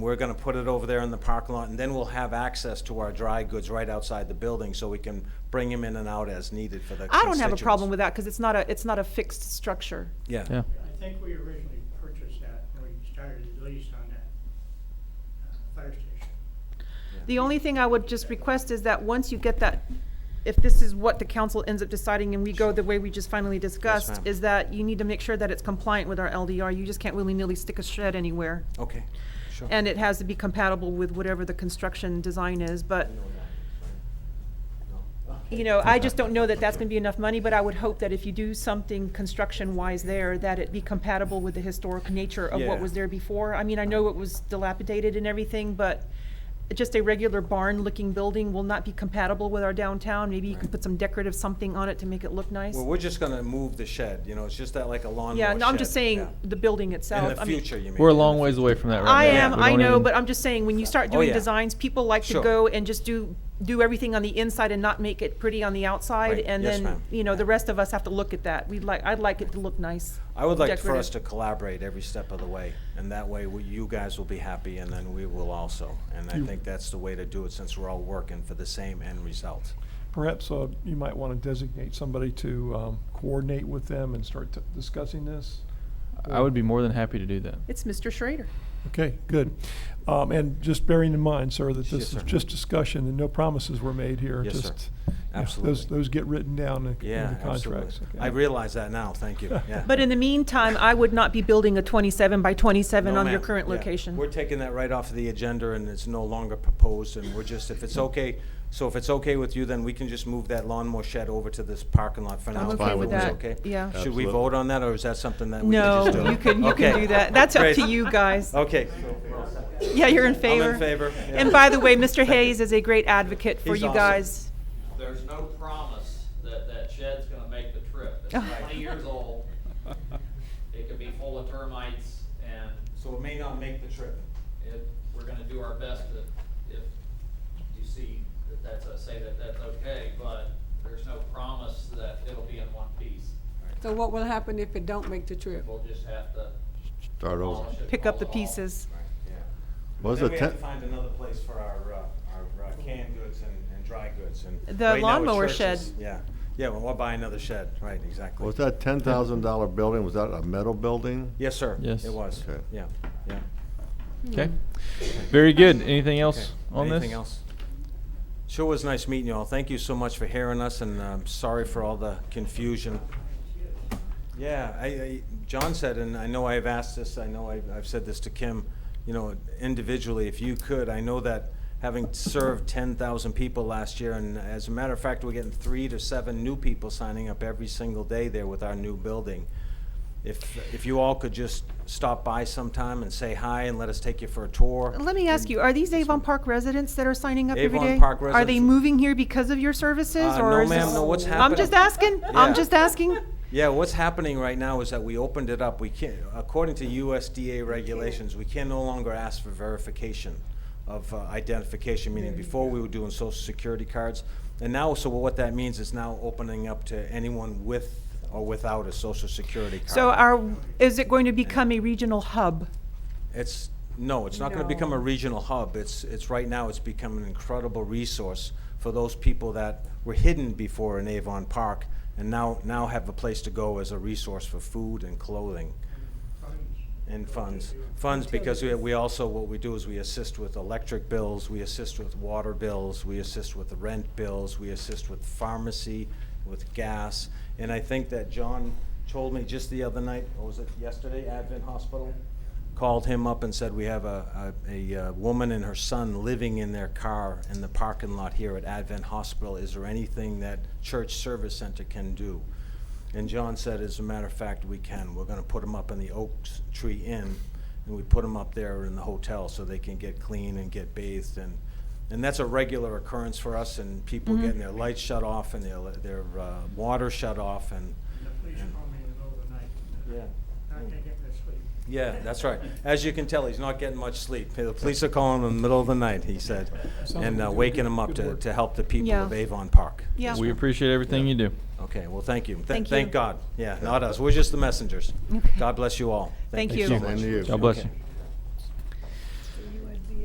We're gonna put it over there in the parking lot, and then we'll have access to our dry goods right outside the building, so we can bring them in and out as needed for the I don't have a constituents. problem with that, because it's not a, it's not a fixed structure. Yeah, Yeah, I think we originally purchased that when we started the lease on that uh, fire station. The only thing I would just request is that once you get that, if this is what the council ends up deciding and we go the way we just finally discussed, ma'am. is that you need to make sure that it's compliant with our LDR. You just can't willy-nilly stick a shed anywhere. okay, sure. And it has to be compatible with whatever the construction design is, but, you know, I just don't know that that's gonna be enough money, but I would hope that if you do something construction-wise there, that it be compatible with the historic nature of what Yeah. was there before. I mean, I know it was dilapidated and everything, but just a regular barn-looking building will not be compatible with our downtown. Maybe you can Right. put some decorative something on it to make it look nice. Well, we're just gonna move the shed, you know, it's just that like a lawnmower Yeah, no, I'm just shed, saying, yeah. the building itself. In the I mean- future, you mean? we're a in the long future. ways away from that right now. I am, We I don't know, even- but I'm just saying, when you start Oh, doing yeah. designs, people like to Sure. go and just do, do everything on the inside and not make it pretty on the outside, Right. and Yes, then, ma'am. you know, the Yeah. rest of us have to look at that. We'd like, I'd like it to look nice. I would like for us to decorative. collaborate every step of the way, and that way we- you guys will be happy and then we will also. And I think that's the way to do it since we're all working for the same end result. Perhaps uh, you might want to designate somebody to um, coordinate with them and start t- discussing this. I would be more than happy to do that. It's Mr. Schrader. Okay, good. Um, And just bearing in mind, sir, Yes, that this sir. is just discussion and no promises were made here. Yes, sir. Just, yeah, Those, Absolutely. those get written down in in Yeah, the absolutely. contracts. okay? I realize that now, thank you, yeah. But in the meantime, I would not be building a twenty-seven by twenty-seven No, on your ma'am. current Yeah. location. We're taking that right off of the agenda and it's no longer proposed and we're just, if it's okay, so if it's okay with you, then we can just move that lawnmower shed over to this parking lot for now. I'm if okay it with was that, okay. yeah. Should we Absolutely. vote on that or is that something that we can No, just do? you can, you can Okay. do that. That's up Great. to you guys. Okay. Yeah, you're in I'm favor. in favor. yeah. And by the way, Mr. Hayes is a great advocate for He's you awesome. guys. There's no promise that that shed's gonna make the trip. It's twenty years old. It could be full of termites and So it may not make the trip. it, we're gonna do our best to, if you see that that's, a- say that that's okay, but there's no promise that it'll be in one piece. So what will happen if it don't make the trip? We'll just have to Start over. demolish it. Pick up the demolish it all. pieces. Right, yeah. Was Then it we have ten- to find another place for our, uh, our uh, canned goods and, and dry goods and. The right now it's lawnmower churches. shed. Yeah, yeah, well, we'll buy another shed, right, exactly. Was that ten thousand dollar building, was that a metal building? Yes, sir. Yes. It was, Okay. yeah, yeah. Okay. Very good. Anything Okay. else on this? Anything else? Sure was nice meeting you all. Thank you so much for hearing us and um sorry for all the confusion. Yeah, I, I, John said, and I know I've asked this, I know I've, I've said this to Kim, you know, individually, if you could, I know that having served ten thousand people last year, and as a matter of fact, we're getting three to seven new people signing up every single day there with our new building. If, if you all could just stop by sometime and say hi and let us take you for a tour. Let me ask you, are these Avon Park residents that are signing up every day? Avon Park Are they residents- moving here because of your services, Uh, or no, is ma'am, this- no, what's I'm just asking, happening- Yeah. I'm just asking. Yeah, what's happening right now is that we opened it up. We can't, according to USDA regulations, we can no longer ask for verification of uh, identification, meaning before we were doing social security cards. And now, so what that means is now opening up to anyone with or without a social security card. So are, is it going to become a regional hub? It's, no, it's not gonna become a regional hub. It's, it's, right now, it's become an incredible resource for those people that were hidden before in Avon Park and now, now have a place to go as a resource for food and clothing and funds. Funds, because we, we also, what we do is we assist with electric bills, we assist with water bills, we assist with rent bills, we assist with pharmacy, with gas. And I think that John told me just the other night, or was it yesterday, Advent Hospital? Called him up and said, we have a, a, a uh, woman and her son living in their car in the parking lot here at Advent Hospital. Is there anything that Church Service Center can do? And John said, as a matter of fact, we can. We're gonna put them up in the Oaks Tree Inn, and we put them up there in the hotel so they can get clean and get bathed and, and that's a regular occurrence for us and people Mm-hmm. getting their lights shut off and their, their, uh, water shut off and, And the police called me in the middle of the night. yeah. Not gonna get to sleep. Yeah, that's right. As you can tell, he's not getting much sleep. The police are calling him in the middle of the night, he said, and uh, waking him up to, to help the people of Yeah. Avon Park. Yeah. We appreciate everything you do. Okay, well, thank you. Th- Thank you. Thank God. Yeah, not us. We're just the messengers. Okay. God bless you all. Thank so you. much. Same to you. God bless Okay. you.